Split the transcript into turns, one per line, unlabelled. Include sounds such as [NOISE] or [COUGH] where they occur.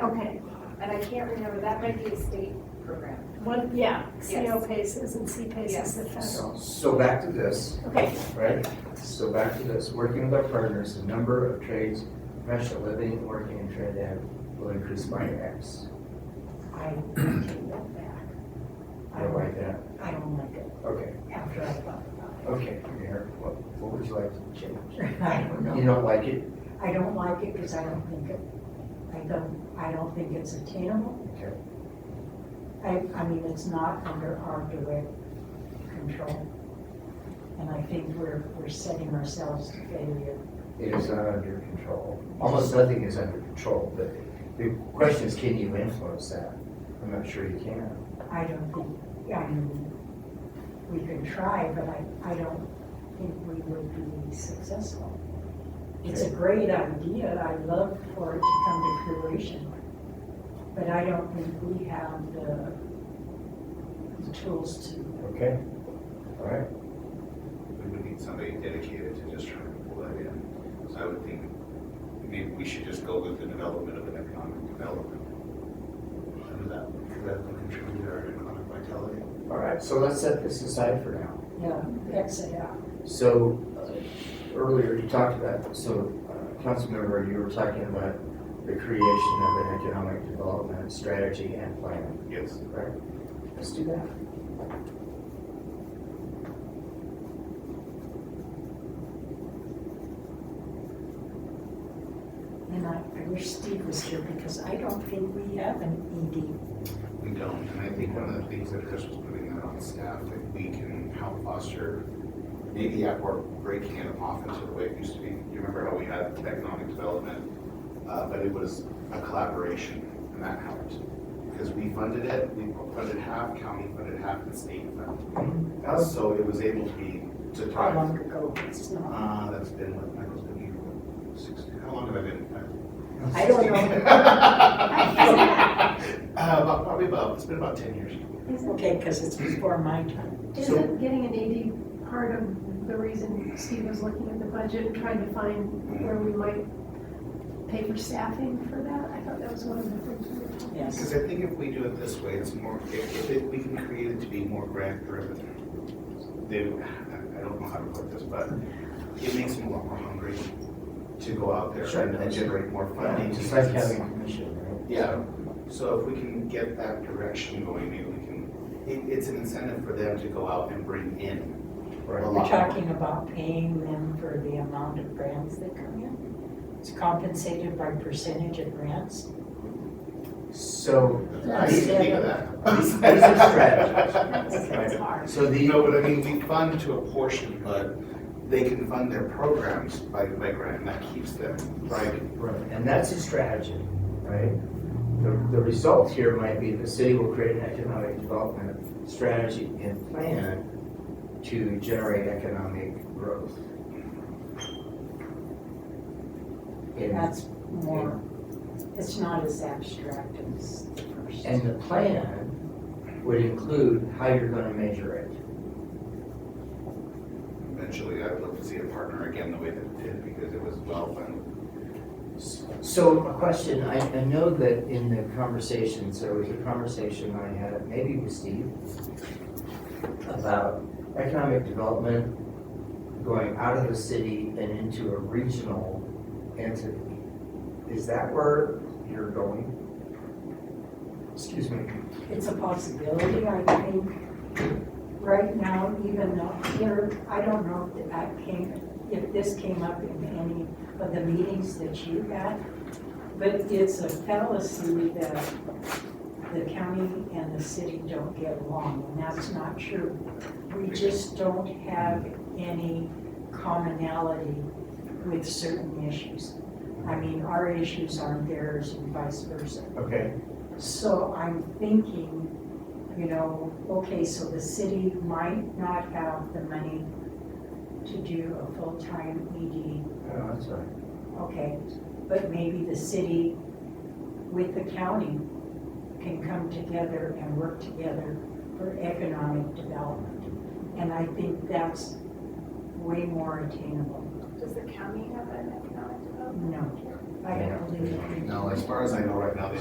okay,
And I can't remember, that might be a state program.
one, yeah, CO
Yes.
paces and C paces,
Yes.
the federal.
So back to this,
Okay,
right? So back to this, working with our partners, the number of trades, professional living, working in Trinidad will increase by X.
I take that back. I
Or like
don't,
that.
I don't like it
Okay,
after I thought about
okay, Mayor, what, what would you like to change?
it. I don't
You
know.
don't like it?
I don't like it because I don't think it, I don't, I don't think it's attainable.
Okay.
I, I mean, it's not under our direct control. And I think we're, we're setting ourselves to failure.
It is not under control. Almost nothing is under control, but the question is, can you influence that? I'm not sure you can.
I don't think, I mean, we can try, but I, I don't think we would be successful. It's a great idea, I'd love for it to come to fruition, but I don't think we have the, the tools to,
Okay? All right,
We would need somebody dedicated to just trying to pull that in. So I would think maybe we should just go with the development of an economic development. And that, that would contribute to our economic vitality.
all right, so let's set this aside for now.
you know, exit out.
So, uh, earlier you talked about, so, uh, Councilmember, you were talking about the creation of an economic development strategy and plan,
Yes.
right? Let's do that.
And I, I wish Steve was here because I don't think we have an E
We don't, and I think one of the things that Chris was putting out on staff, that we can help foster, maybe at work, breaking it off into the way it used to be. You remember how we had economic development, uh, but it was a collaboration, and that helped. Because we funded it, we funded half, county funded half, and state funded. Uh, So it was able to be, to
ED. Mm-hmm. How long
thrive.
ago, it's not.
Uh, that's been what Michael's been here, what, six, how long have I been?
I don't
[LAUGHS] Uh, about, probably about, it's been about ten years.
isn't,
Okay, because it's before my time.
isn't getting an AD part of the reason Steve was looking at the budget and trying to find where we might pay for staffing for that? I thought that was one of the things we were talking
Yes,
Because I think if we do it this way, it's more, if, if it, we can create it to be more grant driven. They, I I don't know how to put this, but it makes them a lot more hungry to go out there
Sure.
and and generate more funding.
Just like
because-
having a commission, right?
Yeah, so if we can get that direction going, maybe we can, it, it's an incentive for them to go out and bring in a
Right.
we're
lot more.
talking about paying them for the amount of grants that come in. It's compensated by percentage of grants.
So,
I didn't even think of that. [LAUGHS]
These- these are strategies. [LAUGHS]
about. It's hard.
so the,
No, but I mean, we fund to a portion, but they can fund their programs by, by grant, and that keeps them thriving.
Right, and that's a strategy, right? The, the result here might be the city will create an economic development strategy and plan to generate economic growth. And,
That's more, it's not as abstract as the first.
and the plan would include how you're gonna measure it.
Eventually, I would love to see it partner again the way that it did, because it was well funded.
So a question, I, I know that in the conversations, there was a conversation I had, maybe with Steve, about economic development going out of the city and into a regional entity. Is that where you're going? Excuse me.
It's a possibility, I think. Right now, even though here, I don't know if that came, if this came up in any of the meetings that you had, but it's a fallacy that the county and the city don't get along, and that's not true. We just don't have any commonality with certain issues. I mean, our issues aren't theirs and vice versa.
Okay,
So I'm thinking, you know, okay, so the city might not have the money to do a full-time ED,
oh, that's all right.
okay, but maybe the city with the county can come together and work together for economic development. And I think that's way more attainable.
Does the county have an economic development?
No, I don't believe it.
No, as far as I know right now, they